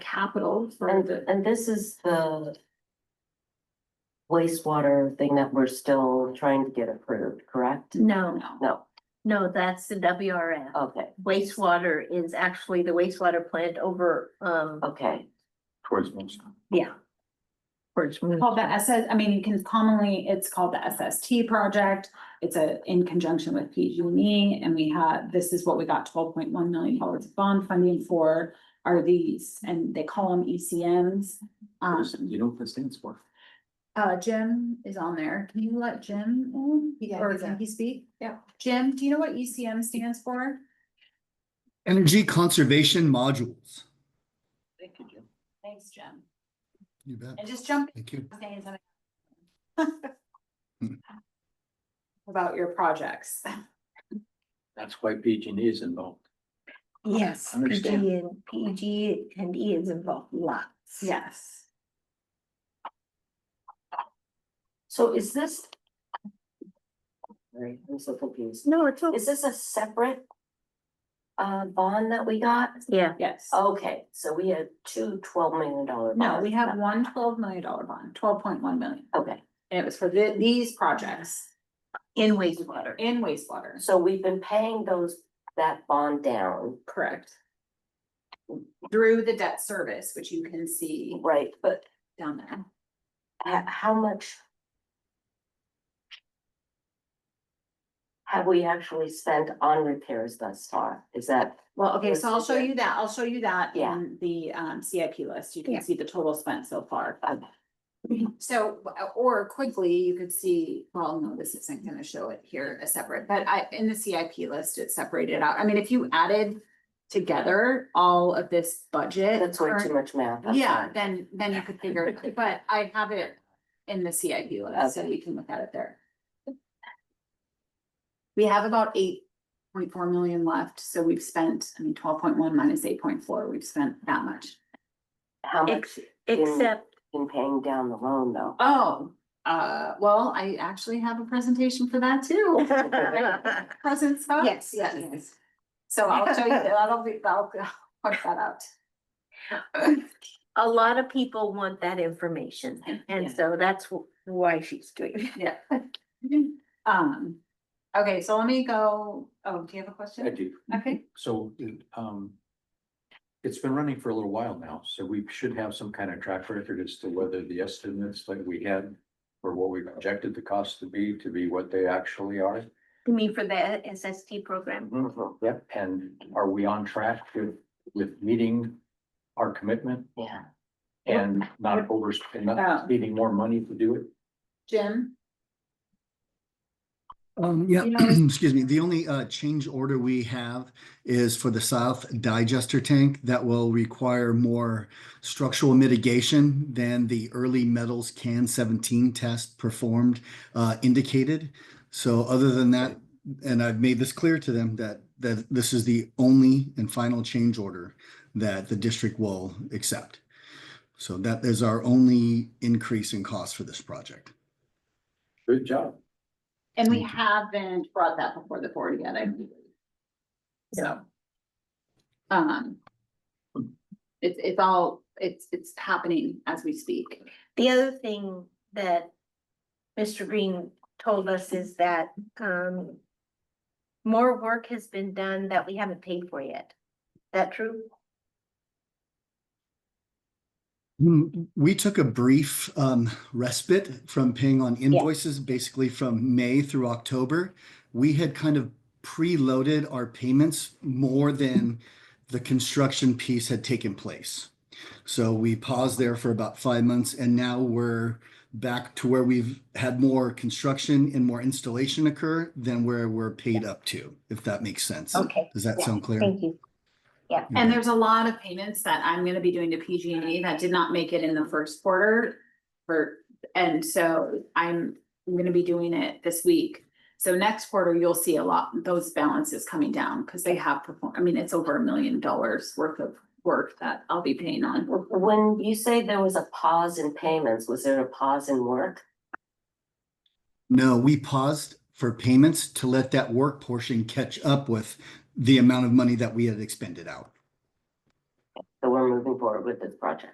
capital for And, the, and this is the wastewater thing that we're still trying to get approved, correct? Mm. No, No, no, that's the WRF. okay, Wastewater is actually the wastewater plant over, um, okay, towards most. yeah. called the SS, I mean, you can commonly, it's called the SST project. It's a, in conjunction with PG&E, and we had, this is what we got twelve point one million dollars of bond funding for are these, and they call them ECMs. Um, You know what that stands for? uh, Jim is on there. Can you let Jim in? Yeah, Or he's can up. he speak? Yeah. Jim, do you know what ECM stands for? Energy conservation modules. Thank you, Jim. Thanks, Jim. You bet. And just jump Thank you. saying something. About your projects. That's why PG and E is involved. Yes, PG Understand. and PG and E is involved lots. Yes. so is this? Sorry, I'm so confused. No, it's, o- Is this a separate? Uh, bond that we got? yeah, Yes. Okay, so we had two twelve million dollar. Oh, No, we have one twelve million dollar bond, twelve point one million, Okay, and it was for the, these projects in wastewater. in wastewater. so we've been paying those, that bond down, Correct. Through the debt service, which you can see right, but down there. ho- how much? Have we actually spent on repairs thus far? Is that, Well, okay, so I'll show you that, I'll show you that Yeah. in the um CIP list, you Yeah. can see the total spent so far. Okay. So, uh, or quickly, you could see, well, no, this isn't gonna show it here as separate, but I, in the CIP list, it's separated out, I mean, if you added. Together, all of this budget. that's way current- too much math. I'm Yeah, sorry. then, then you could figure, it out. but I have it in the CIP list, so you can look at it there. We have about eight point four million left, so we've spent, I mean, twelve point one minus eight point four, we've spent that much. How much Ex- Except, in paying down the loan though? Oh, uh, well, I actually have a presentation for that too. Present stuff? Yes. Yes, yes. So I'll show you, that'll be, I'll, I'll work that out. a lot of people want that information, Yeah. and so that's wh- why she's doing. it. Yeah. Um, okay, so let me go, oh, do you have a question? I do. Okay, So, um. It's been running for a little while now, so we should have some kind of track record as to whether the estimates that we had. Or what we projected the cost to be, to be what they actually are. You mean for the SST program? Yep, and are we on track with, with meeting our commitment? Yeah. And not over, and not needing more money to do it? Jim, Um, yeah, You know- excuse me. The only uh, change order we have is for the south digester tank that will require more structural mitigation than the early metals can 17 test performed uh, indicated. So other than that, and I've made this clear to them that that this is the only and final change order that the district will accept. So that is our only increase in cost for this project. Good job. and we Thank you. haven't brought that before the board yet, I believe. So. Um. It's, it's all, it's, it's happening as we speak. The other thing that Mr. Green told us is that um. More work has been done that we haven't paid for yet. That true? Mm, We took a brief um, respite from paying on invoices, basically from May through October. We had kind of preloaded our payments more than the construction piece had taken place. So we paused there for about five months and now we're back to where we've had more construction and more installation occur than where we're paid up to, if that makes sense. Okay, Does that yeah, sound clear? thank you. And there's a lot of payments that I'm gonna be doing to PG&E E that did not make it in the first quarter. For, and so I'm gonna be doing it this week. So next quarter, you'll see a lot, those balances coming down, because they have performed, I mean, it's over a million dollars worth of work that I'll be paying on. When you say there was a pause in payments, was there a pause in work? No, we paused for payments to let that work portion catch up with the amount of money that we had expended out. So we're moving forward forward with this project.